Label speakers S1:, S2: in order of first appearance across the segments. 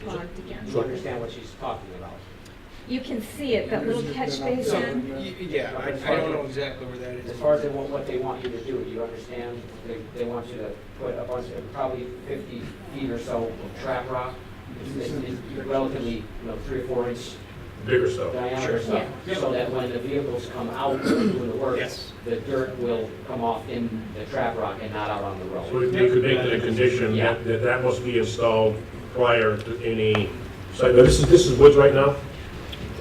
S1: clogged again.
S2: You understand what she's talking about?
S1: You can see it, that little catch basin.
S3: So, y- Yeah, I I don't know exactly where that
S2: As
S3: is.
S2: far as they want, what they want you to do, you understand? They, they want you to put a bunch, of probably fifty feet or so of trap rock. It's, it's relatively, you know, three or four inch
S4: bigger stuff.
S2: diameter stuff.
S1: Yeah.
S2: So that when the vehicles come out doing the work,
S3: Yes.
S2: the dirt will come off in the trap rock and not out on the
S4: So
S2: road.
S4: if you could make it a condition
S2: Yeah.
S4: that, that that must be installed prior to any, so this is, this is woods right now?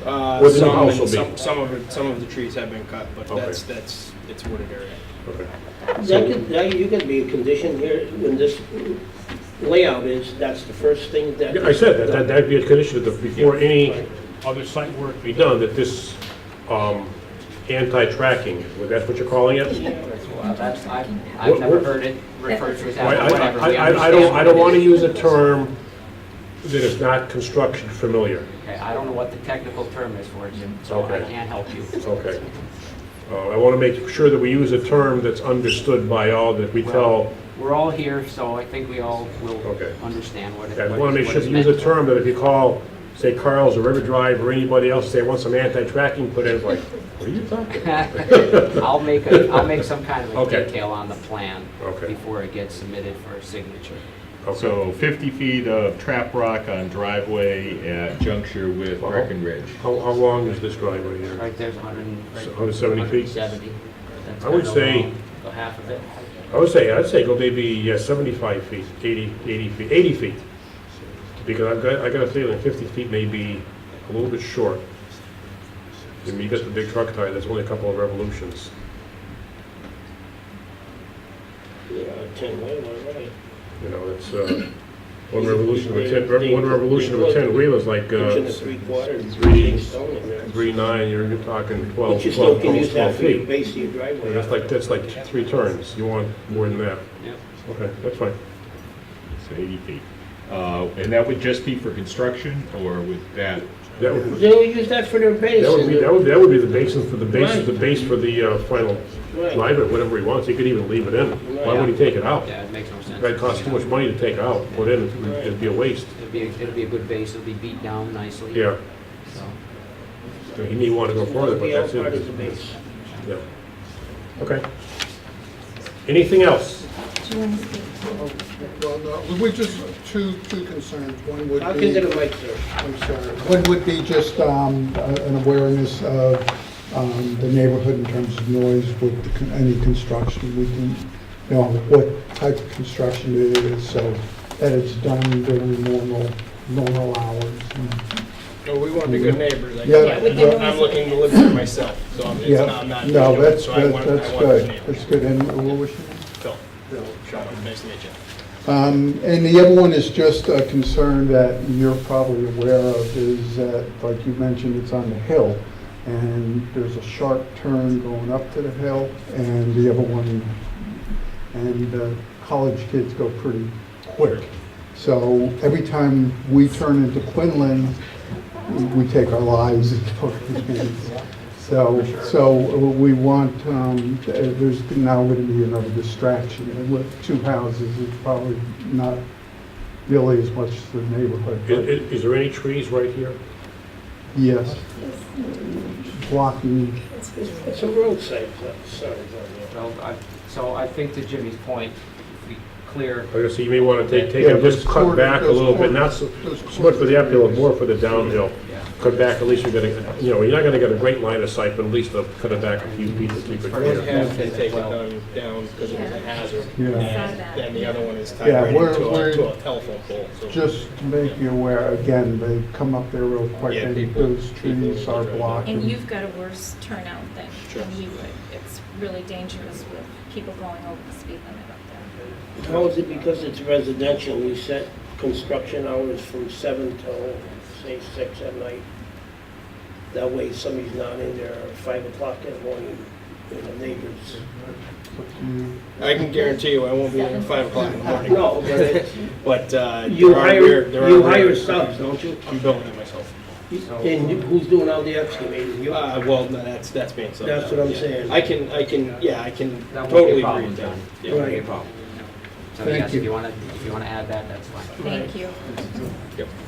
S3: Uh,
S4: Where the new
S3: some,
S4: house will be.
S3: some, some of it, some of the trees have been cut, but
S4: Okay.
S3: that's, that's, it's wooded area.
S4: Okay.
S5: That could, that, you could be conditioned here, when this layout is, that's the first thing that.
S4: Yeah, I said that, that- that'd be a condition that before any other site work be done, that this, um, anti-tracking, well, that's what you're calling it?
S2: That's what- That's, I've, I've
S4: What-
S2: never
S4: what-
S2: heard it referred to as
S4: Why,
S2: that,
S4: I,
S2: but whatever.
S4: I,
S2: we
S4: I- I
S2: understand
S4: don't, I don't
S2: what it
S4: wanna
S2: is.
S4: use a term that is not construction familiar.
S2: Okay, I don't know what the technical term is for it, Jim, so I
S4: Okay.
S2: can't help you.
S4: Okay. Uh, I wanna make sure that we use a term that's understood by all, that we tell,
S2: Well, we're all here, so I think we all will
S4: Okay.
S2: understand what it
S4: I
S2: what
S4: wanna make
S2: what
S4: sure
S2: it's
S4: to use
S2: meant.
S4: a term that if you call, say Carl's or River Drive or anybody else, say, I want some anti-tracking put in, it's like, what are you talking?
S2: I'll make, a will make some kind of a
S4: Okay.
S2: detail on the plan
S4: Okay.
S2: before it gets submitted for signature.
S4: Okay.
S6: So 50 feet of trap rock on driveway at juncture with
S4: Wow.
S6: Breckenridge. Ridge.
S4: How, how long is this driveway here?
S2: Right there's 100 and... right-
S4: 170 feet?
S2: 170. That's
S4: I would
S2: kind of
S4: say-
S2: long, the half of it.
S4: I would say, I'd say go maybe uh, 75 feet, 80, 80 feet, 80 feet. Because I've got, I got a feeling 50 feet may be a little bit short. I mean, you got the big truck tire, that's only a couple of revolutions.
S5: Yeah, ten, way, one way.
S4: You know, it's, uh, one revolution of a 10, one revolution of a 10 wheel is like,
S5: Inch and a
S4: uh,
S5: three quarters.
S4: three-
S5: stone in there.
S4: three, nine, you're, you're talking 12,
S5: But you still
S4: 12,
S5: can use
S4: almost
S5: that
S4: 12
S5: for your
S4: feet.
S5: base of your driveway.
S4: That's like, that's like t- three turns, you want more than that.
S2: Yep.
S4: Okay, that's fine.
S6: So 80 feet. Uh, And that would just be for construction or would that,
S4: That would,
S5: They'll use that for their base.
S4: That would be,
S5: and
S4: that would, that would be the basis for the basis, the base for the uh, final
S5: Right.
S4: live or whatever he wants. He could even leave it in. Why would he take it out?
S2: Yeah, it makes no sense.
S4: That'd cost too much money to take out, put in, it'd be- it'd be a waste.
S2: It'd be, a- it'd be a good base, it'll be beat down nicely.
S4: Yeah,
S2: So,
S4: So he may want to go further, but
S5: be all
S4: that's
S5: part of the
S4: it.
S5: base.
S4: Yeah. Okay. Anything else?
S1: Do you want to speak to it?
S7: Well, no, we just, two, two concerns. One would be...
S5: I'll consider Mike, sir.
S7: I'm sorry. One would be just um, a- an awareness of um, the neighborhood in terms of noise with the con- any construction. We can, you know, what type of construction it is, so that it's done during normal, normal hours. and-
S3: No, we want to be good neighbors. like,
S7: Yeah.
S1: Yeah, we can
S3: I'm
S1: always-
S3: looking to live there myself, so I'm, it's
S7: Yeah.
S3: not, I'm not.
S7: No,
S3: doing it,
S7: that's,
S3: so I
S7: that's
S3: want- I
S7: that's
S3: want good
S7: good.
S3: neighbors.
S7: That's good. And what was your name?
S3: Phil, Sean, nice to meet you.
S7: Um, And the other one is just a concern that you're probably aware of is that, like you mentioned, it's on the hill, and there's a sharp turn going up to the hill, and the other one, and uh, college kids go pretty quick. So every time we turn into Quinlan, we take our lives into our hands. So, so we want, um, there's now going to be another distraction. And With two houses, it's probably not really as much the neighborhood.
S4: I- i-
S7: but
S4: Is, there any trees right here?
S7: Yes. Blocking,
S5: It's it's a roadside, pla- sorry.
S2: well, I- So I think to Jimmy's point, if we clear
S4: Like I say, you may want to take, take,
S7: Yeah,
S4: it, just
S7: those
S4: cut
S7: corner-
S4: back a
S7: those
S4: little bit,
S7: corner-
S4: not so,
S7: those
S4: so much for the
S7: corner
S4: uphill,
S7: areas.
S4: more for the downhill.
S2: Yeah.
S4: Cut back, at least you're gonna, you know, you're not gonna get a great line of sight, but at least they'll cut it back a few feet to keep it
S2: Yeah.
S3: First
S4: clear.
S3: half, they take it down, down because it was a hazard.
S7: Yeah.
S3: And then the other one is tied
S7: Yeah,
S3: right
S7: we're-
S3: into
S7: we're-
S3: a, to a telephone pole, so.
S7: just to make you aware, again, they come up there real quick,
S3: Yeah,
S7: and
S3: people-
S7: those trees
S3: people
S7: are
S3: are right.
S7: blocking.
S1: And you've got a worse turnout than
S3: Sure.
S1: than we would. It's really dangerous with people going over the speed limit up
S5: How is it because it's residential, we set construction hours from seven till, say, six at night? That way somebody's not in there at five o'clock in the morning, you know, neighbors.
S7: Mm.
S3: I can guarantee you, I won't be there at five o'clock in the morning.
S5: No, but it's-
S3: But, uh.
S5: you
S3: there are
S5: hire,
S3: weird- there are
S5: you hire
S3: weird-
S5: subs, don't you?
S3: I'm building it myself.
S5: And you- who's doing all the excavating? You
S3: Uh, well, no, that's, that's being said.
S5: That's what I'm saying.
S3: I can, I can, yeah, I can
S2: That won't be
S3: totally
S2: a
S3: agree
S2: problem,
S3: with that.
S2: John. It
S3: Yeah.
S2: won't be a problem. So
S7: Thank
S2: yes, if
S7: you.
S2: you want to, if you want to add that, that's fine.
S1: there. Thank you.
S3: Yep.